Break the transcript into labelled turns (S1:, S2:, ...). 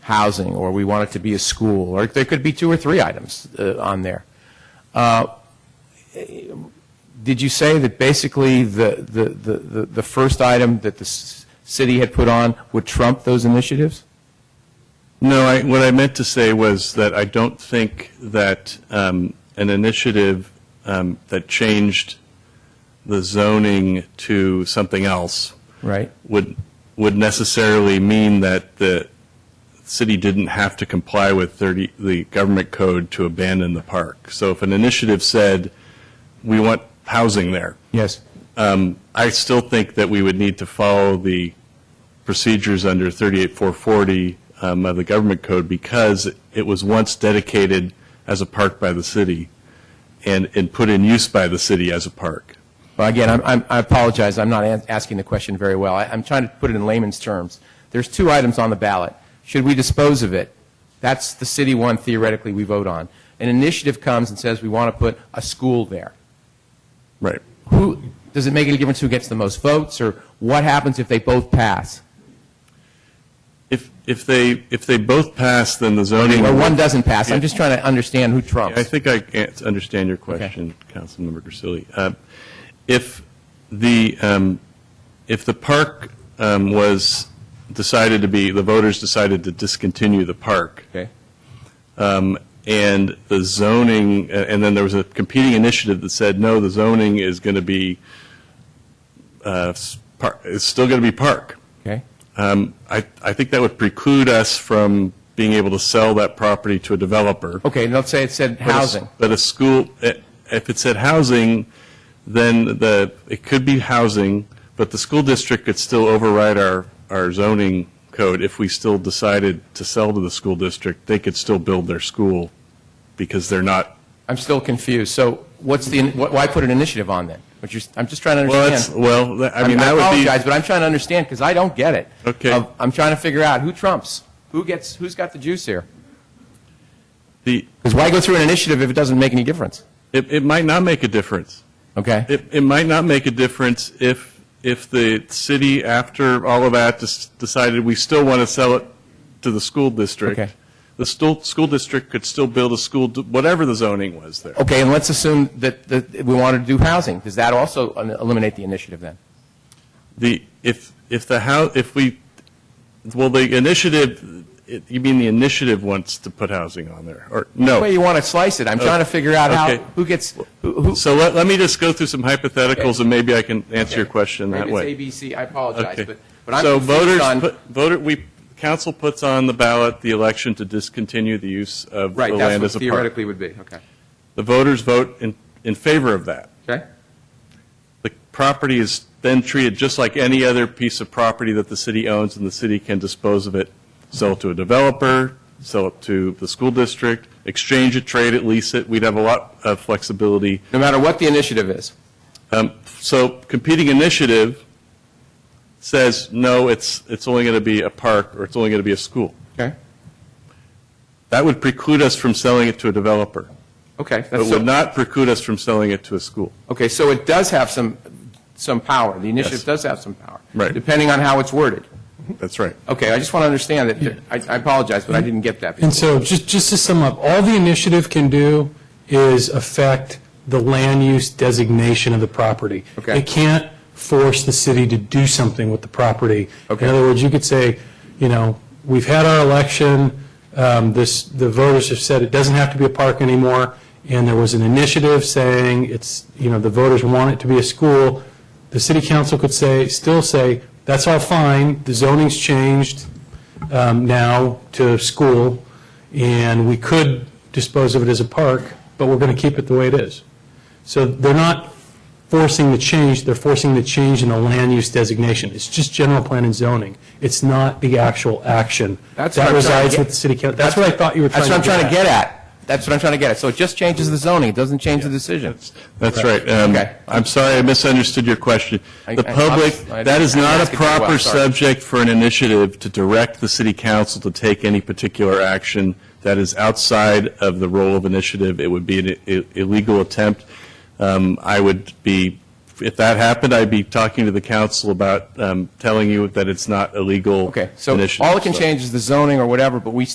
S1: housing, or we want it to be a school, or there could be two or three items uh, on there. Uh, Did you say that basically the, the, the, the- the first item that the s- city had put on would trump those initiatives?
S2: No, I, what I meant to say was that I don't think that um, an initiative um, that changed the zoning to something else
S1: Right?
S2: would would necessarily mean that the city didn't have to comply with 30 the government code to abandon the park. So if an initiative said we want housing there,
S1: Yes.
S2: um, I still think that we would need to follow the procedures under 38440 um, of the government code because it was once dedicated as a park by the city and, and put in use by the city as a park.
S1: Well, again, I'm- I'm- I apologize, I'm not an- asking the question very well. I- I'm trying to put it in layman's terms. There's two items on the ballot. Should we dispose of it? That's the city one theoretically we vote on. An initiative comes and says we want to put a school there.
S2: Right.
S1: Who, does it make any difference who gets the most votes, or what happens if they both pass?
S2: If, if they, if they both pass, then the zoning.
S1: Or one doesn't pass? I'm just trying to understand who trumps.
S2: I think I can understand your question, Councilmember Grisilli. Uh, If the, um, if the park um, was decided to be, the voters decided to discontinue the park,
S1: Okay.
S2: um, and the zoning, a- and then there was a competing initiative that said, no, the zoning is going to be, uh, s- par- it's still going to be park.
S1: Okay.
S2: Um, I, I think that would preclude us from being able to sell that property to a developer.
S1: Okay, and let's say it said
S2: But a s-
S1: housing.
S2: But a school, eh, if it said housing, then the, it could be housing, but the school district could still override our, our zoning code. If we still decided to sell to the school district, they could still build their school because they're not,
S1: I'm still confused. So what's the, wh- why put an initiative on then? What you're- I'm just trying to
S2: well,
S1: understand.
S2: that's, well, that- I
S1: I
S2: mean, that would be.
S1: apologize, but I'm trying to understand because I don't get it.
S2: Okay.
S1: Of- I'm trying to figure out who trumps, who gets, who's got the juice here.
S2: the-
S1: Because why go through an initiative if it doesn't make any difference?
S2: It, it might not make a difference.
S1: Okay.
S2: It, it might not make a difference if, if the city, after all of that, des- decided we still want to sell it to the school district.
S1: Okay.
S2: The school, school district could still build a school, d- whatever the zoning was there.
S1: okay, and let's assume that, that we wanted to do housing. Does that also un- eliminate the initiative then?
S2: The, if, if the house, if we, well, the initiative, it- you mean the initiative wants to put housing on there, or,
S1: The way
S2: no.
S1: you want to slice it, I'm trying to figure out
S2: Okay.
S1: how who gets who. who
S2: So let, let me just go through some hypotheticals, and maybe I can answer your
S1: Okay.
S2: question that
S1: Maybe
S2: way.
S1: it's ABC. I apologize,
S2: Okay.
S1: but but I'm
S2: so
S1: confused
S2: voters
S1: on
S2: put, voter we council puts on the ballot the election to discontinue the use of
S1: right.
S2: the
S1: That's
S2: land
S1: what
S2: as a park.
S1: theoretically would be. Okay.
S2: The voters vote in, in favor of that.
S1: Okay.
S2: The property is then treated just like any other piece of property that the city owns, and the city can dispose of it, sell it to a developer, sell it to the school district, exchange it, trade it, lease it. We'd have a lot of flexibility
S1: No matter what the initiative is.
S2: Um, So competing initiative says, no, it's, it's only going to be a park, or it's only going to be a school.
S1: Okay.
S2: That would preclude us from selling it to a developer,
S1: Okay.
S2: but
S1: That's so-
S2: would not preclude us from selling it to a school.
S1: Okay, so it does have some, some power. The initiative
S2: Yes.
S1: does have some power.
S2: Right.
S1: Depending on how it's worded.
S2: That's right.
S1: Okay, I just want to understand that, I I apologize, but I didn't get that.
S3: And so, just, just to sum up, all the initiative can do is affect the land use designation of the property.
S1: Okay.
S3: It can't force the city to do something with the property.
S1: Okay.
S3: In other words, you could say, you know, we've had our election, um, this, the voters have said it doesn't have to be a park anymore, and there was an initiative saying it's, you know, the voters want it to be a school. The city council could say, still say, that's all fine, the zoning's changed, um, now to school, and we could dispose of it as a park, but we're going to keep it the way it is. So they're not forcing the change, they're forcing the change in the land use designation. It's just general plan and zoning. It's not the actual action.
S1: That's what I'm trying
S3: That
S1: to
S3: resides
S1: get-
S3: with the city council. That's what I thought you were trying
S1: That's
S3: to
S1: what
S3: get
S1: I'm
S3: at.
S1: trying to get at. That's what I'm trying to get at. So it just changes the zoning, it doesn't change the decision.
S2: That's right. Um,
S1: Okay.
S2: I'm sorry, I misunderstood your question.
S1: I-
S2: The
S1: I-
S2: public,
S1: I-
S2: that is
S1: I'm
S2: not a
S1: asking you well,
S2: proper
S1: sorry.
S2: subject for an initiative to direct the city council to take any particular action that is outside of the role of initiative. It would be an i- illegal attempt. Um, I would be if, if that happened, I'd be talking to the council about um, telling you that it's not a legal
S1: Okay, so
S2: initiative.
S1: all it can change is the zoning or whatever, but we